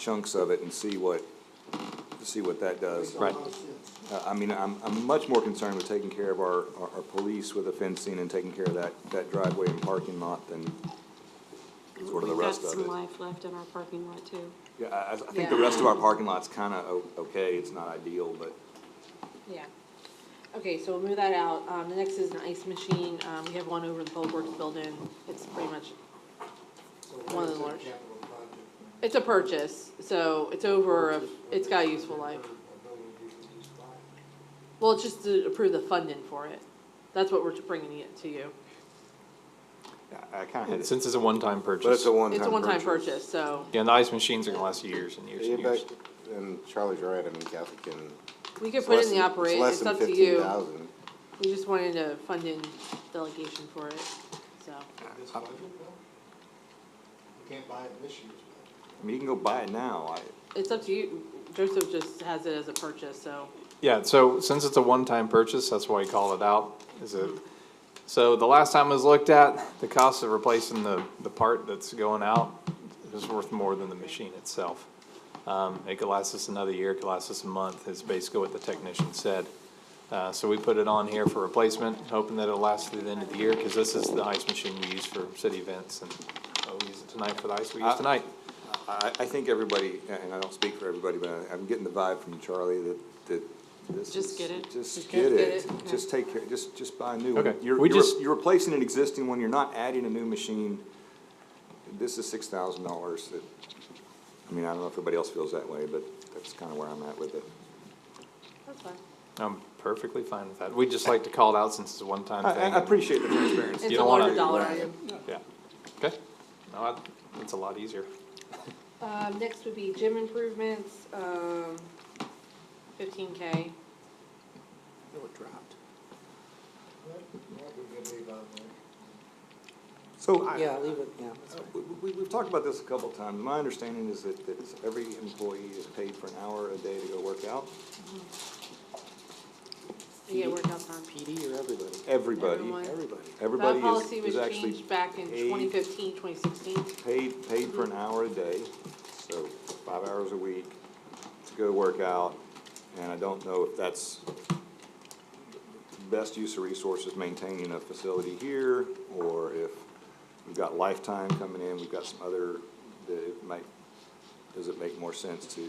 chunks of it and see what, see what that does. Right. Uh, I mean, I'm, I'm much more concerned with taking care of our, our, our police with the fencing and taking care of that, that driveway and parking lot than sort of the rest of We've it. got some life left in our parking lot too. Yeah, I, I I think the rest of our parking lot's kinda o- okay, it's not ideal, but Yeah. Okay, so we'll move that out. Um, the next is an ice machine. Um, we have one over in the Public Works building. It's pretty much, One of the large. it's a purchase, so it's over, a- it's got a useful life. Well, it's just to approve the funding for it. That's what we're bringing it to you. I- I kinda had it. Since it's a one-time purchase. But it's a one-time It's a one-time purchase, so Yeah, and the ice machines are gonna last years and years Yeah, and years. but- And Charlie's right, I mean, Kathy can. we could put it in the operate, it's up to It's less than you. fifteen thousand. We just wanted a funding delegation for it, so. I- budget, can't buy it this year's budget. I mean, you can go buy it now, I, It's up to you. Joseph just has it as a purchase, so. Yeah, so since it's a one-time purchase, that's why we call it out, is it, so the last time it was looked at, the cost of replacing the, the part that's going out is worth more than the machine itself. Um, it could last us another year, it could last us a month, is basically what the technician said. Uh, so we put it on here for replacement, hoping that it'll last through the end of the year, cause this is the ice machine we use for city events and uh, we use it tonight for the ice we use tonight. I, I think everybody, and I don't speak for everybody, but I- I'm getting the vibe from Charlie that, that this is. Just get it. Just get get it. it, Just take care, just, just buy a new one. Okay, You're, we you're, just- you're replacing an existing one, you're not adding a new machine. This is six thousand dollars that, I mean, I don't know if everybody else feels that way, but that's kinda where I'm at with it. That's fine. I'm perfectly fine with that. We'd just like to call it out since it's a one-time I, thing. I I appreciate the transparency. It's You a don't wanna- larger dollar item. Yeah, okay. No, I- it's a lot easier. Um, next would be gym improvements, um, fifteen K. What, what we gonna leave out there? So, I- Yeah, leave it, yeah. that's fine. we, we, we've talked about this a couple of times. My understanding is that, that every employee is paid for an hour a day to go work out. You get workout time. PD or everybody? Everybody, Everyone. Everybody. everybody That policy is, was is actually changed back in Mm-hmm. paid- 2015, 2016. paid, paid for an hour a day, so five hours a week to go work out. And I don't know if that's best use of resources, maintaining a facility here, or if we've got lifetime coming in, we've got some other, that it might, does it make more sense to?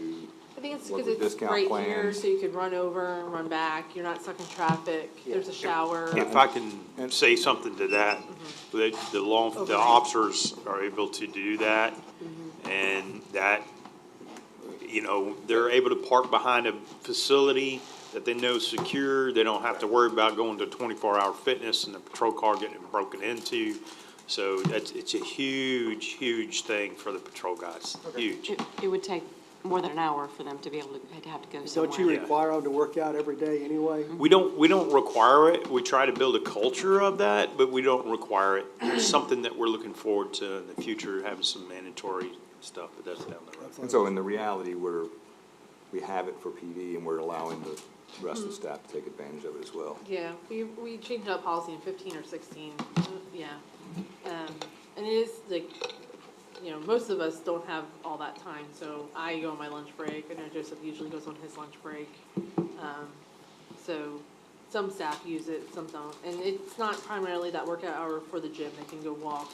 I think it's work because with it's discount right here, plans? so you could run over, run back, you're not stuck in traffic, there's a shower. If I can say something to that, the, the law, the officers are able to do that, and that, you know, they're able to park behind a facility that they know is secure, they don't have to worry about going to twenty-four hour fitness and the patrol car getting broken into. So that's, it's a huge, huge thing for the patrol guys, huge. It, it would take more than an hour for them to be able to, to have to go somewhere. Don't you require them to work out every day anyway? We don't, we don't require it. We try to build a culture of that, but we don't require it. It's something that we're looking forward to in the future, having some mandatory stuff, but that's down the road. And so in the reality, we're, we have it for PD and we're allowing the rest Mm-hmm. of the staff to take advantage of it as well. Yeah, we, we changed that policy in fifteen or sixteen, uh, yeah. Um, and it is like, you know, most of us don't have all that time, so I go on my lunch break, I know Joseph usually goes on his lunch break. Um, so some staff use it, some don't, and it's not primarily that workout hour for the gym, they can go walk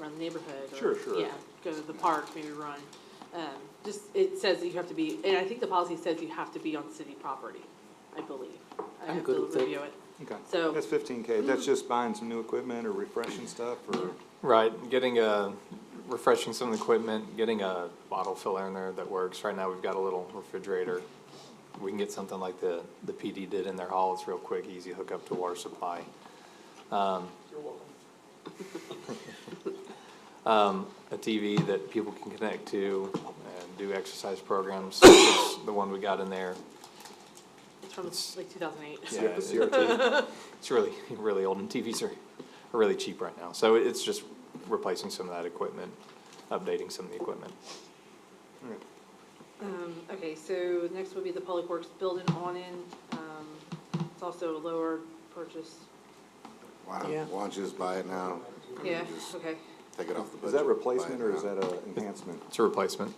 around the neighborhood. or- Sure, sure. Yeah, go to the park, maybe run. Um, just, it says that you have to be, and I think the policy says you have to be on city property, I believe. I I'm have good to with it. review it. Okay. So- That's fifteen K, that's just buying some new equipment or refreshing stuff or? Right, getting a, refreshing some of the equipment, getting a bottle filler in there that works. Right now, we've got a little refrigerator. We can get something like the, the PD did in their hall. It's real quick, easy hook up to water supply. Um, a TV that people can connect to and do exercise programs, such as the one we got in there. It's from like two thousand eight. Yeah, it's- It's really, really old, and TVs are are really cheap right now. So it's just replacing some of that equipment, updating some of the equipment. Um, okay, so next would be the Public Works building on in, um, it's also a lower purchase. Why Yeah. don't, why don't you just buy it now, Yeah, okay. take it off the budget? Is that buy it replacement or is now. that a enhancement? It's a replacement.